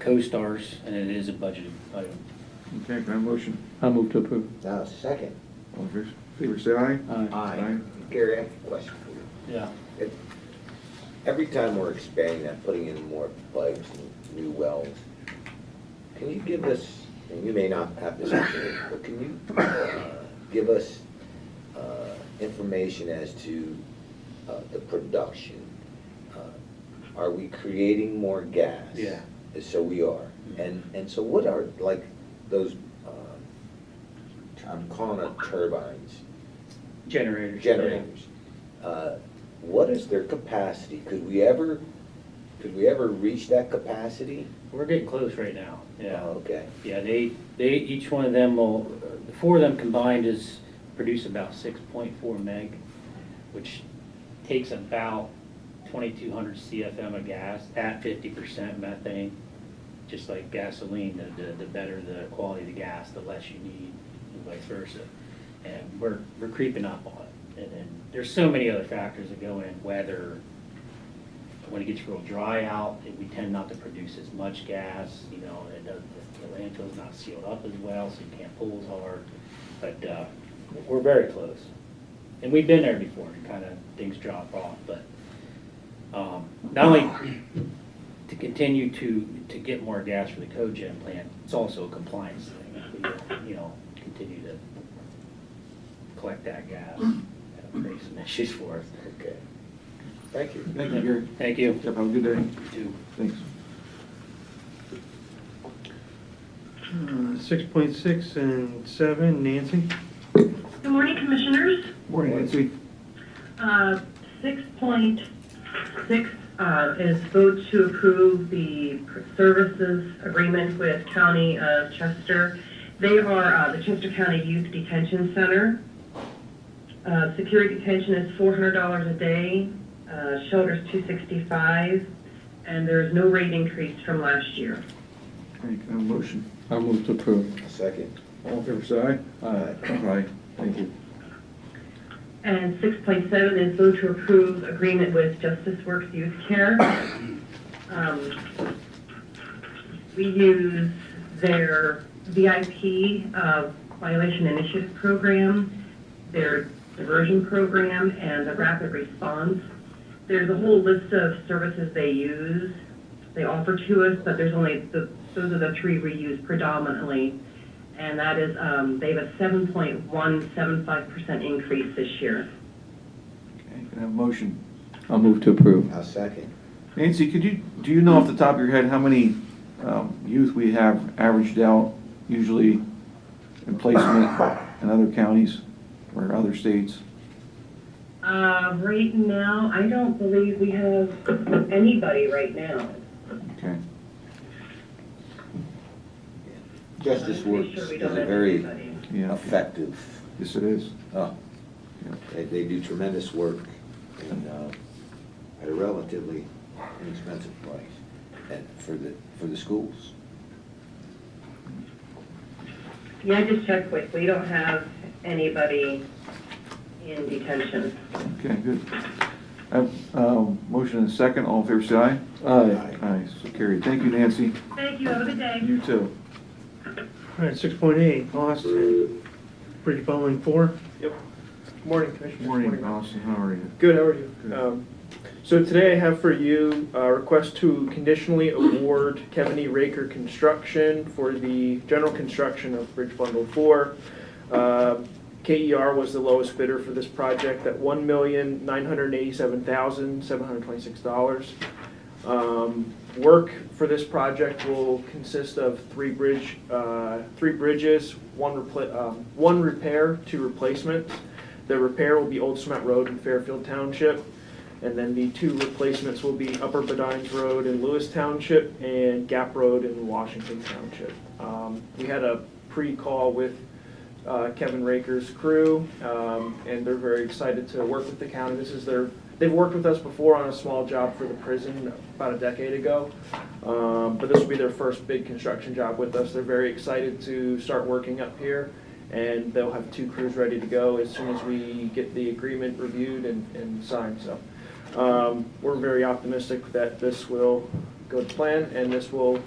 co-stars, and it is a budgeted item. Okay, can I have a motion? I move to approve. Now, second, All in favor, say aye. Aye. I, Gary, I have a question for you. Yeah. It- Every time we're expanding that, putting in more pipes and new wells, can you give us, and you may not have this, information, but can you uh, give us uh, information as to uh, the production? Uh, Are we creating more gas? Yeah. So we are. And, and so what are, like, those, um, I'm calling them turbines, Generators. generators. Uh, What is their capacity? Could we ever, could we ever reach that capacity? We're getting close right now, Oh, yeah. Okay, Yeah, they, they, each one of them will, the four of them combined is, produce about six point four meg, which takes about twenty-two hundred CFM of gas at fifty percent methane. Just like gasoline, the, the, the better the quality of the gas, the less you need, and vice versa. And we're, we're creeping up on it. And then, there's so many other factors that go in, weather, when it gets real dry out, it- we tend not to produce as much gas, you know, and it does, the landfill's not sealed up as well, so you can't pull as hard. But, uh, we're very close. And we've been there before, kind of, things drop off, but, um, not only to continue to, to get more gas for the cogen plant, it's also a compliance thing. We, You know, continue to collect that gas, That'll create some issues for us. okay. Thank you. Thank you, Gary. Thank you. Yep, have a good day. Two. Thanks. Uh, Six point six and seven, Nancy? Good morning, Commissioners. Morning, Nancy. Uh, 6.6 uh, is vote to approve the services agreement with County of Chester. They are uh, the Chester County Youth Detention Center. Uh, Security detention is $400 a day, uh, shelter's $265, and there is no rate increase from last year. Okay, can I have a motion? I move to approve. Second. All in favor, say aye. Aye. Aye, thank you. And six point seven is vote to approve agreement with Justice Works Youth Care. Um, We use their VIP uh, violation initiative program, their diversion program, and the rapid response. There's a whole list of services they use, they offer to us, but there's only, the- those are the three we use predominantly. And that is, um, they have a seven point one seven five percent increase this year. Okay, can I have a motion? I move to approve. I'll second. Nancy, could you, do you know off the top of your head how many um, youth we have averaged out usually in placement in other counties or other states? Uh, right now, I don't believe we have anybody right now. Okay. Justice I'm pretty Works sure is we a don't have very anybody. Yeah, effective, yes it is. oh, Yeah. they, they do tremendous work and, uh, at a relatively inexpensive price and for the, for the schools. Yeah, I just checked with, we don't have anybody in detention. Okay, good. I have, um, Motion and a second, all in favor, say aye. Aye. Aye, so carried. Thank you, Nancy. Thank you, have a good day. You too. All right, six point eight, Austin. pretty following four. Morning, Commissioner. Morning, Austin, how are you? Good, how are you? Good. Um, So today I have for you a request to conditionally award Kevin E. Raker Construction for the general construction of Bridge Bundle Four. Uh, KER was the lowest bidder for this project at one million, nine hundred eighty-seven thousand, seven hundred twenty-six dollars. Um, Work for this project will consist of three bridge, uh, three bridges, one repla, um, one repair, two replacements. The repair will be Old Cement Road in Fairfield Township, and then the two replacements will be Upper Bedines Road in Lewis Township and Gap Road in Washington Township. Um, We had a pre-call with uh, Kevin Raker's crew, um, and they're very excited to work with the county. This is their, they've worked with us before on a small job for the prison about a decade ago, um, but this will be their first big construction job with us. They're very excited to start working up here, and they'll have two crews ready to go as soon as we get the agreement reviewed and, and signed, so. Um, We're very optimistic that this will go to plan, and this will